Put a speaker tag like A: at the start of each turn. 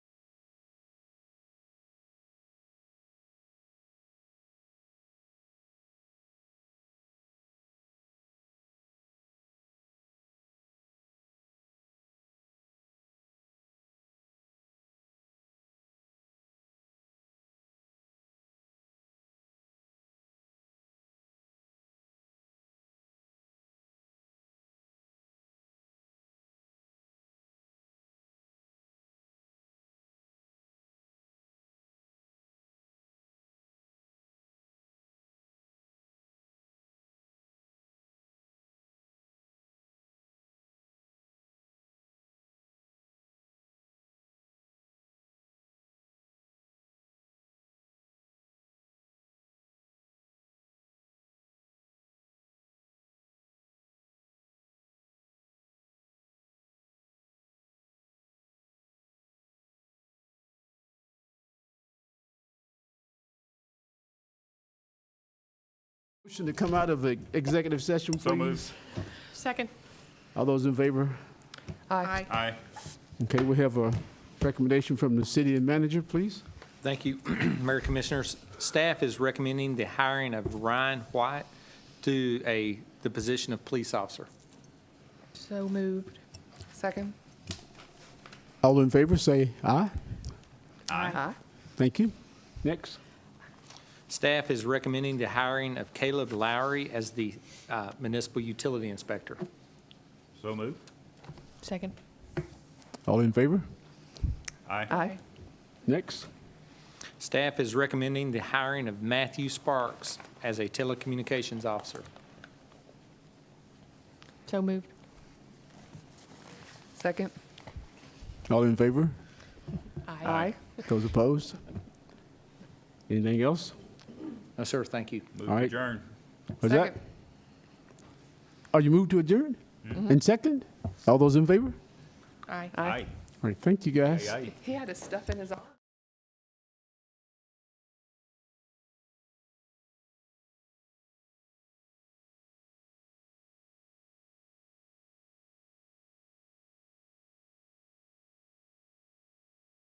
A: Motion to come out of the executive session,
B: So
A: please.
B: moved.
C: Second.
A: All those in favor?
C: Aye.
B: Aye.
A: Okay, we have a recommendation from the city manager, please.
D: Thank you, Mayor Commissioners. Staff is recommending the hiring of Ryan White to a, the position of police officer.
C: So moved.
E: Second?
A: All in favor, say aye.
E: Aye.
A: Thank you. Next.
D: Staff is recommending the hiring of Caleb Lowry as the uh, municipal utility inspector.
B: So moved.
C: Second.
A: All in favor?
B: Aye.
E: Aye.
A: Next.
D: Staff is recommending the hiring of Matthew Sparks as a telecommunications officer.
C: So moved.
E: Second?
A: All in favor? Those opposed? Anything else?
D: No, sir, thank you.
B: Move
A: All
B: to
A: right.
B: adjourn.
A: Was that?
E: Second.
A: Are you moved to adjourn? And second? All those in favor?
C: Aye.
E: Aye.
A: All right, thank you, guys.
B: Aye. Aye.
E: He had his stuff in his arm.